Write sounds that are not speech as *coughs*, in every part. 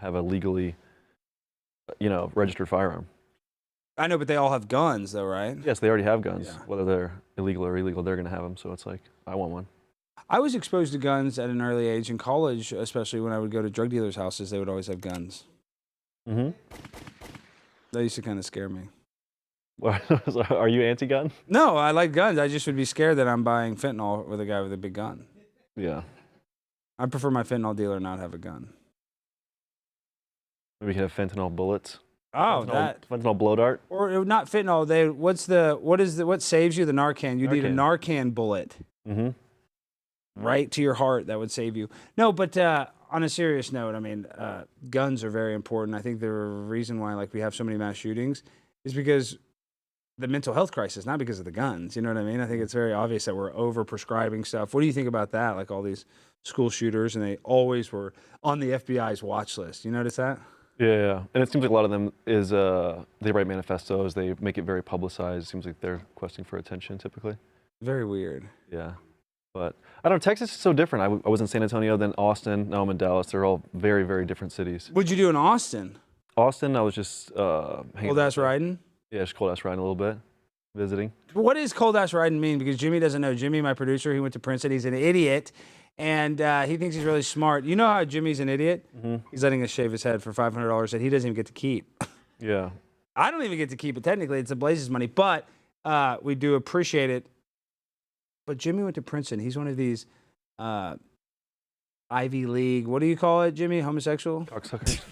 have a legally, you know, registered firearm. I know, but they all have guns, though, right? Yes, they already have guns. Yeah. Whether they're illegal or illegal, they're going to have them. So it's like, I want one. I was exposed to guns at an early age in college, especially when I would go to drug dealers' houses. They would always have guns. Mm-hmm. That used to kind of scare me. *laughs* Are you anti-gun? No, I like guns. I just would be scared that I'm buying fentanyl with a guy with a big gun. Yeah. I prefer my fentanyl dealer not have a gun. Maybe we could have fentanyl bullets. Oh, fentanyl, that fentanyl blow dart. or it- not fentanyl. They what's the what is the what saves you the Narcan? You need a Narcan bullet Mm-hmm. right to your heart that would save you. No, but uh, on a serious note, I mean, uh, guns are very important. I think the reason why like we have so many mass shootings is because the mental health crisis, not because of the guns. You know what I mean? I think it's very obvious that we're over prescribing stuff. What do you think about that? Like all these school shooters, and they always were on the FBI's watch list. You notice that? Yeah, yeah. And it seems like a lot of them is uh, they write manifestos. They make it very publicized. Seems like they're questing for attention typically. Very weird. Yeah. But I don't know. Texas is so different. I, w- I was in San Antonio, then Austin. Now I'm in Dallas. They're all very, very different cities. What'd you do in Austin? Austin, I was just uh, hanging. Cold ass riding. Yeah, just cold ass riding a little bit, visiting. What does cold ass riding mean? Because Jimmy doesn't know. Jimmy, my producer, he went to Princeton. He's an idiot, and uh, he thinks he's really smart. You know how Jimmy's an idiot? He's letting us shave his head for five hundred dollars that he doesn't even get to keep. *coughs* Yeah. I don't even get to keep it technically. It's the Blazes' money, but uh, we do appreciate it. But Jimmy went to Princeton. He's one of these uh, Ivy League. What do you call it, Jimmy? Homosexual? Cocksuckers.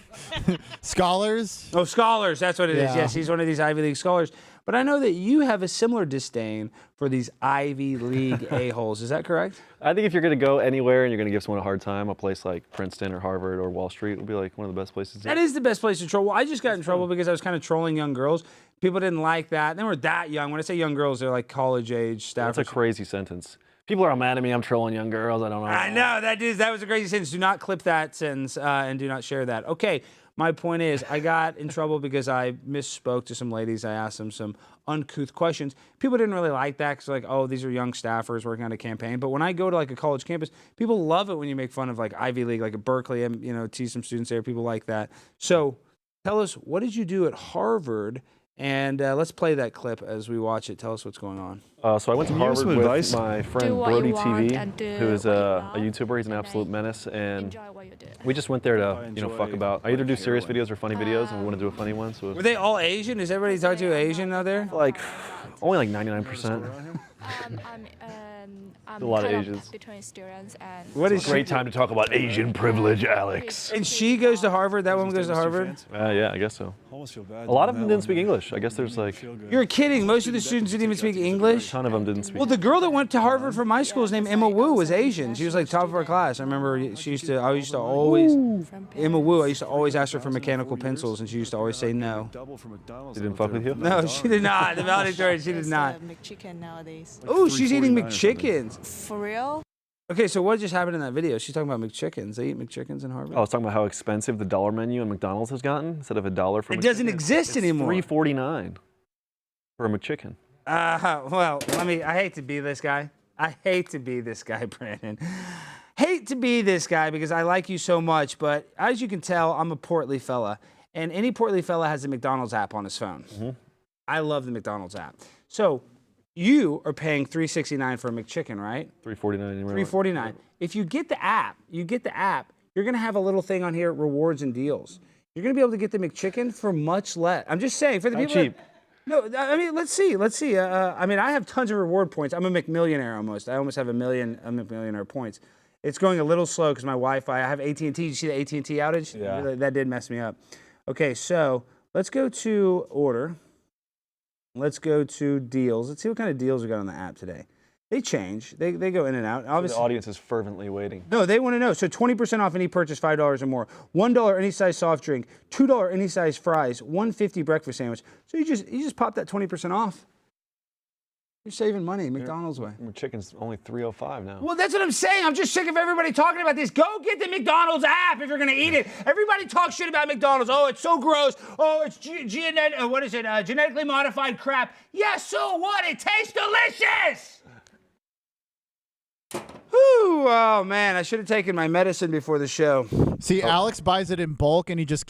Scholars? Oh, scholars. That's what it is. Yeah. Yes, he's one of these Ivy League scholars. But I know that you have a similar disdain for these Ivy League a-holes. Is that correct? *laughs* I think if you're going to go anywhere and you're going to give someone a hard time, a place like Princeton or Harvard or Wall Street would be like one of the best places. to- That is the best place to troll. Well, I just got in trouble because I was kind of trolling young girls. People didn't like that. They were that young. When I say young girls, they're like college age, That's a Stafford. crazy sentence. People are all mad at me. I'm trolling young girls. I don't know. I know that is that was a crazy sentence. Do not clip that sentence uh, and do not share that. Okay, my point is, I got in trouble because I misspoke to some ladies. I asked them some uncouth questions. People didn't really like that because like, oh, these are young staffers working on a campaign. But when I go to like a college campus, people love it when you make fun of like Ivy League, like at Berkeley, and you know, tease some students there. People like that. So, tell us what did you do at Harvard? And uh, let's play that clip as we watch it. Tell us what's going on. Uh, so I went to Can you give Harvard us some with advice? my friend what you Brody want and TV, do who is what you a, a love, YouTuber. He's an and absolute I menace, and enjoy what you do. we just went there to you know fuck about. I either do serious videos or funny videos, and we want to do a funny one. So Were they all Asian? Is everybody talking to Asian out there? like only like 99%. Um, I'm, um, I'm lot of kind Asians. between students and. What is Great time to talk about Asian privilege, Alex. And she goes to Harvard. That woman goes to Harvard. Uh, yeah, I guess so. Almost feel bad. A lot of them didn't speak English. I guess there's like a You're kidding. Most of the students didn't even speak English. ton of them didn't speak. Well, the girl that went to Harvard from my school, is named Emma Wu, was Asian. She was like top of her class. I remember she used to. I used to always Emma Wu. I used to always ask her for mechanical pencils, and she used to always say no. Double from McDonald's. They didn't fuck with you? No, she did not. The valedictorian, she did It's, not. uh, McChicken nowadays. Oh, she's eating 349 or something. McChickens. For real? Okay, so what just happened in that video? She's talking about McChickens. They eat McChickens in Harvard. Oh, I was talking about how expensive the dollar menu in McDonald's has gotten. Instead of a dollar for It doesn't exist anymore. Three forty nine for a McChicken. Uh, well, I mean, I hate to be this guy. I hate to be this guy, *laughs* Brandon. Hate to be this guy because I like you so much, but as you can tell, I'm a portly fella. And any portly fella has a McDonald's app on his phone. I love the McDonald's app. So you are paying 369 for a McChicken, right? Three forty nine. 349. If you get the app, you get the app, you're gonna have a little thing on here, rewards and deals. You're gonna be able to get the McChicken for much less. I'm just saying for the people. that- cheap. no, th- I mean, let's see, let's see. Uh, Uh, I mean, I have tons of reward points. I'm a McMillionaire almost. I almost have a million, a McMillionaire points. It's going a little slow because my Wi-Fi. I have AT&T. Did you see the AT&T outage? Yeah. Really, that did mess me up. Okay, so let's go to order. Let's go to deals. Let's see what kind of deals we got on the app today. They change. They, they go in and out. The Obviously, audience is fervently waiting. no, they want to know. So 20% off any purchase, $5 or more. $1 any size soft drink, $2 any size fries, 150 breakfast sandwich. So you just you just pop that 20% off. You're saving money McDonald's way. McChicken's only three oh five now. Well, that's what I'm saying. I'm just sick of everybody talking about this. Go get the McDonald's app if you're going to eat it. Everybody talks shit about McDonald's. Oh, it's so gross. Oh, it's ge- genet- uh, what is it? Uh, genetically modified crap. Yes, so what? It tastes delicious. Who Whew, oh man, I should have taken my medicine before the show. See, Alex buys it in bulk and he just